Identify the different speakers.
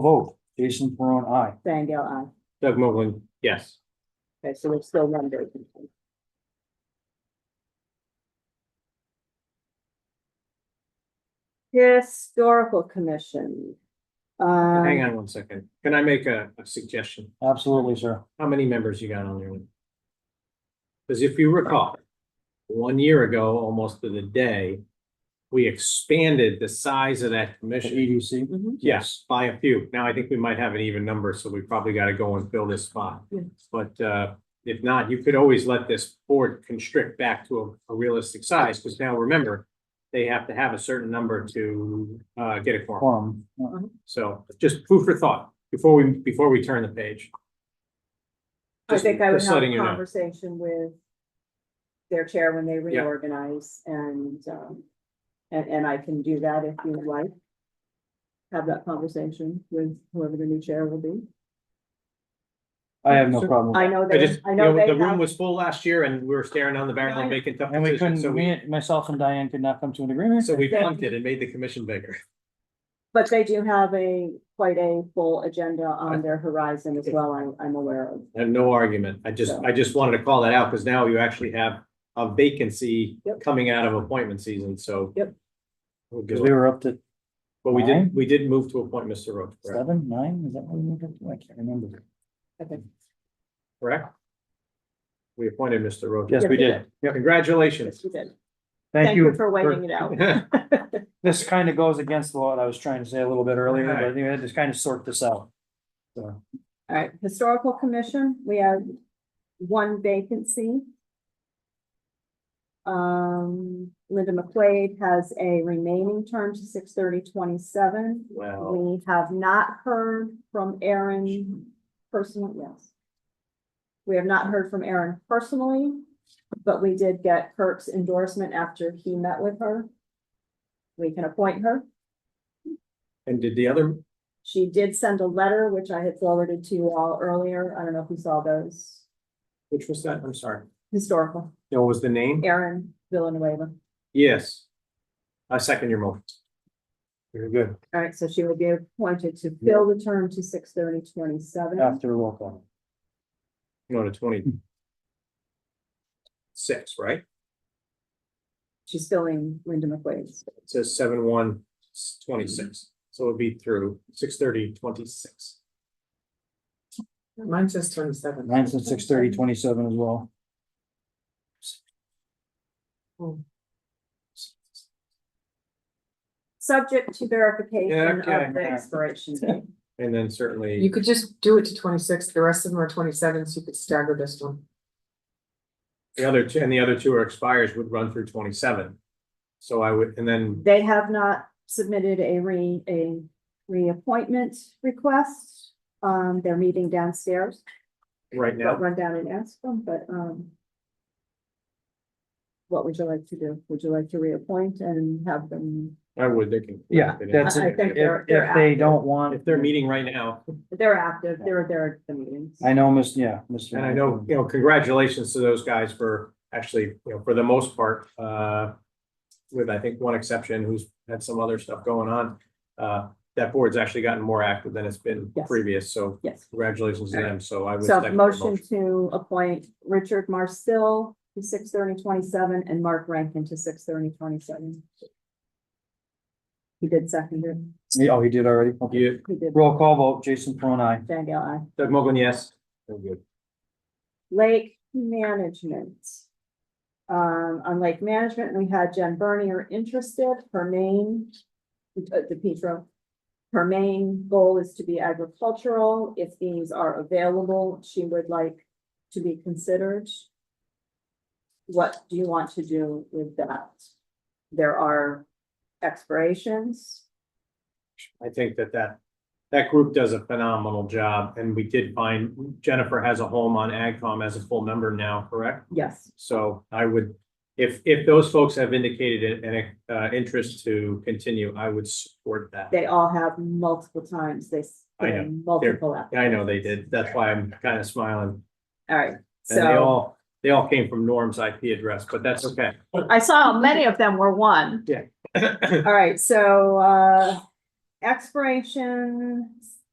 Speaker 1: Vote, Jason Peron, aye.
Speaker 2: Stangle, aye.
Speaker 3: Doug Mowgli, yes.
Speaker 2: Okay, so there's still one vacancy. Historical Commission.
Speaker 3: Hang
Speaker 2: Um,
Speaker 3: on one second. Can I make a, a suggestion?
Speaker 1: Absolutely, sir.
Speaker 3: How many members you got on your one? Because if you recall, one year ago, almost to the day, we expanded the size of that
Speaker 1: The E
Speaker 3: commission.
Speaker 1: EDC.
Speaker 2: mhm.
Speaker 3: Yes, by a few. Now I think we might have an even number, so we probably gotta go and fill this spot.
Speaker 2: Yeah.
Speaker 3: But uh, if not, you could always let this board constrict back to a a realistic size, because now remember, they have to have a certain number to uh, get a quorum.
Speaker 1: Quorum.
Speaker 3: So just food for thought before we, before we turn the page.
Speaker 2: I
Speaker 3: Just-
Speaker 2: think I would
Speaker 3: just
Speaker 2: have
Speaker 3: letting
Speaker 2: a
Speaker 3: you know.
Speaker 2: conversation with their chair when they
Speaker 3: Yeah.
Speaker 2: reorganize and, um, and, and I can do that if you would like. Have that conversation with whoever the new chair will be.
Speaker 1: I have no problem. with
Speaker 2: I
Speaker 1: that.
Speaker 2: know
Speaker 3: I
Speaker 2: they,
Speaker 3: just,
Speaker 2: I
Speaker 3: you
Speaker 2: know
Speaker 3: know,
Speaker 2: they
Speaker 3: the room
Speaker 2: have,
Speaker 3: was full last year and we were staring down the barrel of vacant.
Speaker 1: And we
Speaker 3: positions,
Speaker 1: couldn't,
Speaker 3: So we,
Speaker 1: me, myself and Diane could not come to an agreement.
Speaker 3: so we
Speaker 2: Yeah.
Speaker 3: punted and made the commission bigger.
Speaker 2: but they do have a, quite a full agenda on their horizon as well, I'm, I'm aware of.
Speaker 3: I have no argument. I just,
Speaker 2: So-
Speaker 3: I just wanted to call that out because now you actually have a vacancy
Speaker 2: Yep.
Speaker 3: coming out of appointment season, so.
Speaker 2: Yep.
Speaker 3: We'll
Speaker 1: Because
Speaker 3: do
Speaker 1: we
Speaker 3: it.
Speaker 1: were up to
Speaker 3: But we
Speaker 1: Nine?
Speaker 3: did, we did move to appoint Mr. Roach, correct?
Speaker 1: seven, nine, is that what we moved up to? I can't remember.
Speaker 2: I think.
Speaker 3: Correct? We appointed Mr. Roach.
Speaker 1: Yes,
Speaker 2: Yes,
Speaker 1: we
Speaker 2: we
Speaker 1: did. Yep.
Speaker 3: Congratulations.
Speaker 2: Yes, you did.
Speaker 1: Thank you.
Speaker 2: For waiting it out.
Speaker 1: This kind of goes against what I was trying to say a little bit earlier, but I
Speaker 3: Alright.
Speaker 1: think I had to kind of sort this out. So,
Speaker 2: All right, Historical Commission, we have one vacancy. Um, Linda McQuaid has a remaining term to six thirty twenty-seven.
Speaker 3: Well,
Speaker 2: We have not heard from Aaron personally, yes. We have not heard from Aaron personally, but we did get Kirk's endorsement after he met with her. We can appoint her.
Speaker 3: and did the other,
Speaker 2: She did send a letter, which I had forwarded to you all earlier. I don't know if you saw those.
Speaker 3: which was that? I'm sorry.
Speaker 2: Historical,
Speaker 3: What was the name?
Speaker 2: Aaron Villanueva.
Speaker 3: Yes. I second your motion.
Speaker 1: very good.
Speaker 2: All right, so she will be appointed to fill the term to six thirty twenty-seven.
Speaker 1: After roll call.
Speaker 3: No, to twenty. Six, right?
Speaker 2: She's filling Linda McQuaid's.
Speaker 3: It says seven, one, twenty-six. So it'll be through six thirty, twenty-six.
Speaker 4: Mine says twenty-seven.
Speaker 1: Nine to six thirty, twenty-seven as well.
Speaker 2: Subject to verification
Speaker 3: Yeah,
Speaker 2: of the
Speaker 1: okay.
Speaker 2: expiration date.
Speaker 3: And then certainly.
Speaker 4: You could just do it to twenty-six, the rest of them are twenty-seven, so you could stagger this one.
Speaker 3: The other two, and the other two are expires would run through twenty-seven. So I would, and then,
Speaker 2: They have not submitted a re, a reappointment request. Um, they're meeting downstairs.
Speaker 3: right
Speaker 2: I'll
Speaker 3: now,
Speaker 2: run down and ask them, but, um. What would you like to do? Would you like to reappoint and have them,
Speaker 3: I would, they can.
Speaker 1: Yeah, that's
Speaker 2: I- I
Speaker 1: it.
Speaker 2: think
Speaker 3: If
Speaker 2: they're-
Speaker 1: If,
Speaker 2: they're
Speaker 1: if they
Speaker 2: active.
Speaker 1: don't want.
Speaker 3: if they're meeting right now,
Speaker 2: they're active, they're, they're at the meetings.
Speaker 1: I know, Miss, yeah, Mr.
Speaker 3: and I know, you know, congratulations to those guys for actually, you know, for the most part, uh. With, I think, one exception who's had some other stuff going on, uh, that board's actually gotten more active than it's been
Speaker 2: Yes.
Speaker 3: previous, so
Speaker 2: Yes.
Speaker 3: congratulations to them, so I would.
Speaker 2: So
Speaker 3: second the
Speaker 2: motion to appoint Richard Marcel to six thirty twenty-seven and Mark Rankin to six thirty twenty-seven. He did second it.
Speaker 1: Yeah, Oh, he did already. Okay.
Speaker 3: You,
Speaker 2: He did.
Speaker 1: Roll call vote, Jason Peron, aye.
Speaker 2: Van Gale, aye.
Speaker 3: Doug Mogul, yes? Very good.
Speaker 2: Lake management. Um, on lake management, we had Jen Bernier interested, her main, uh, DePietro. Her main goal is to be agricultural. If these are available, she would like to be considered. What do you want to do with that? There are expirations.
Speaker 3: I think that that, that group does a phenomenal job, and we did find Jennifer has a home on AgCom as a full member now, correct?
Speaker 2: Yes,
Speaker 3: So I would, if, if those folks have indicated an, uh, interest to continue, I would support that.
Speaker 2: they all have multiple times. They. s-
Speaker 3: I know.
Speaker 2: Multiple. app-
Speaker 3: I know they did, that's why I'm kind of smiling,
Speaker 2: All right, so.
Speaker 3: and they all, they all came from Norm's IP address, but that's okay.
Speaker 2: I saw many of them were one.
Speaker 3: I
Speaker 2: All right, so uh expiration